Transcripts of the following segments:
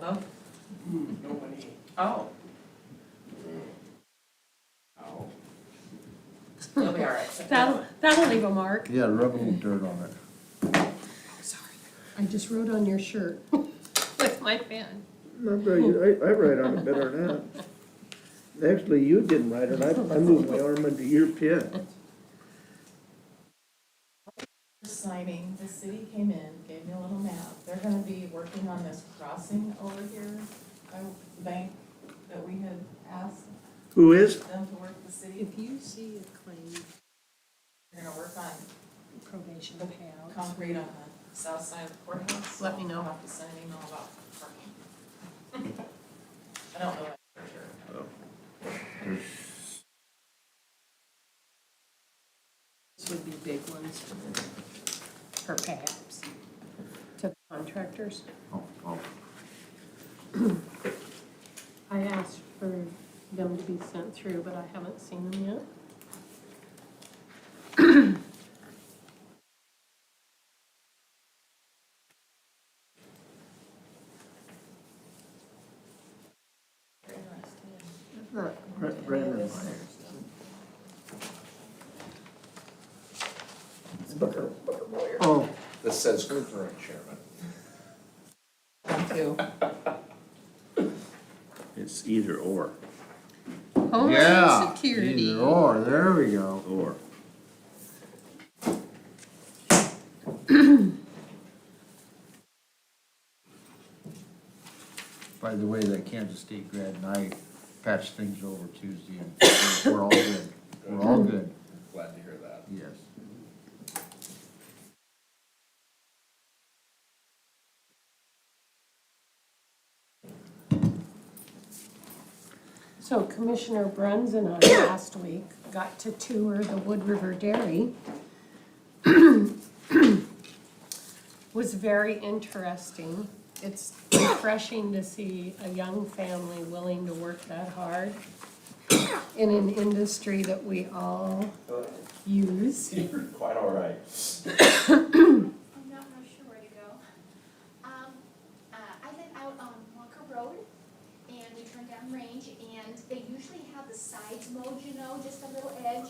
No? Nobody. Oh, Oh. you'll be all right. That'll, that'll leave a mark. Yeah, rub a little dirt on it. Sorry. I just wrote on your shirt with my pen. No, but you- I, I write on it better than that. Actually, you didn't write it, I, I moved my arm into your pen. Signing, the city came in, gave me a little map. They're gonna be working on this crossing over here by the bank that we had asked Who is? them to work the city. If you see a claim They're gonna work on probation payout, concrete on the south side of the courthouse. Let me know. I'll have to send an email about parking. I don't know that for sure. those would be big ones for payouts to contractors. Oh, oh. I asked for them to be sent through, but I haven't seen them yet. Very interesting. Brandon Meyer. Booker, Booker Boyer. Oh, This says current chairman. It's either or, Yeah. Homeland Security. Either or, there we go. or. By the way, that Kansas State grad and I patched things over Tuesday and we're all good. We're all good, Glad to hear that. yes. So Commissioner Bruns and I last week got to tour the Wood River Dairy. Was very interesting. It's refreshing to see a young family willing to work that hard in an industry that we all use. You're quite all right. I'm not real sure where to go. Um, uh, I live out on Walker Road, and we turn down range, and they usually have the sides mowed, you know, just a little edge.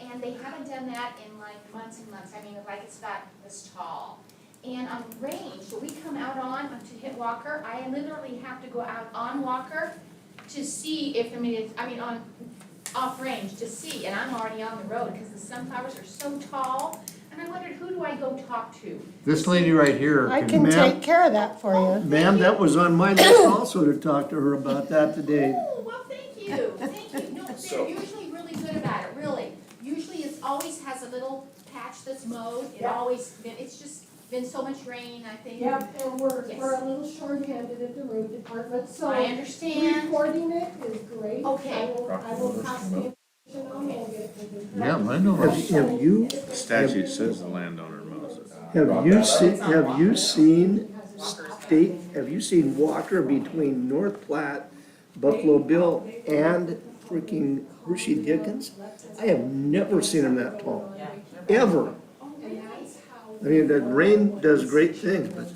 And they haven't done that in like months and months, I mean, like it's about this tall. And on range, that we come out on, um, to hit Walker, I literally have to go out on Walker to see if, I mean, it's, I mean, on, off range, to see, and I'm already on the road, because the sunflowers are so tall. And I wondered, who do I go talk to? This lady right here. I can Ma'am? take care of that for you. ma'am, that was on my list also to talk to her about that today. Oh, well, thank you, thank you. No, So- they're usually really good about it, really. Usually it's always has a little patch that's mowed. It Yeah. always, been it's just been so much rain, I think. Yep, and we're, Yes. we're a little shorthanded at the road department, I so understand. reporting it is great. Okay. I will, I will pass the information on and get it to the. Yeah, landowner. Have have you, The statute says the landowner mows it. have you seen, have you seen Walker's back. state, have you seen Walker between North Platte, Buffalo Bill, and freaking Hershey Dickens? I have never seen them that tall, Yeah. ever. Oh, I mean, that rain does great things, but,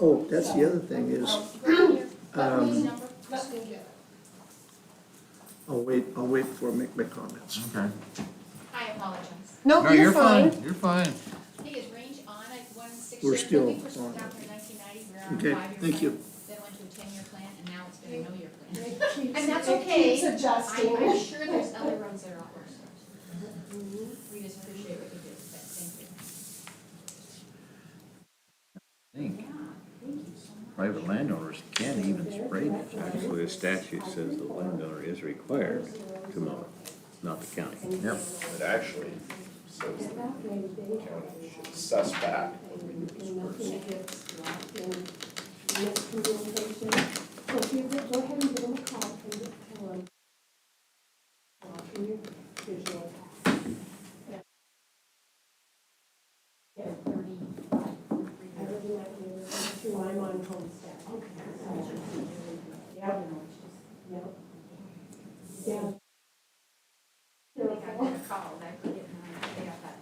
oh, that's the other thing is, um, Number- Let me get it. I'll wait, I'll wait for, make my comments. Okay. I apologize. No, Nope, Oh, you're fine, you're fine. I think it's range on at one six We're years. I think still we're on down it. to 1990. We're on a Okay, five-year thank you. plan, Then went to a ten-year plan, and now it's been a no-year plan. It keeps- And that's It okay. keeps adjusting. I'm, I'm sure there's other roads that are out worse. We just appreciate what you do, but thank you. Think. Private landowners can't even spray this. Actually, the statute says the landowner is required to mow it, not the county. Yep. It actually says the county should assess back what we do as persons. So if you could go ahead and give them a call and just tell them. uh, in your visual path. Yeah, thirty-five. I really like you, too, I'm on homestead. Okay. Yep. Yep. Yeah.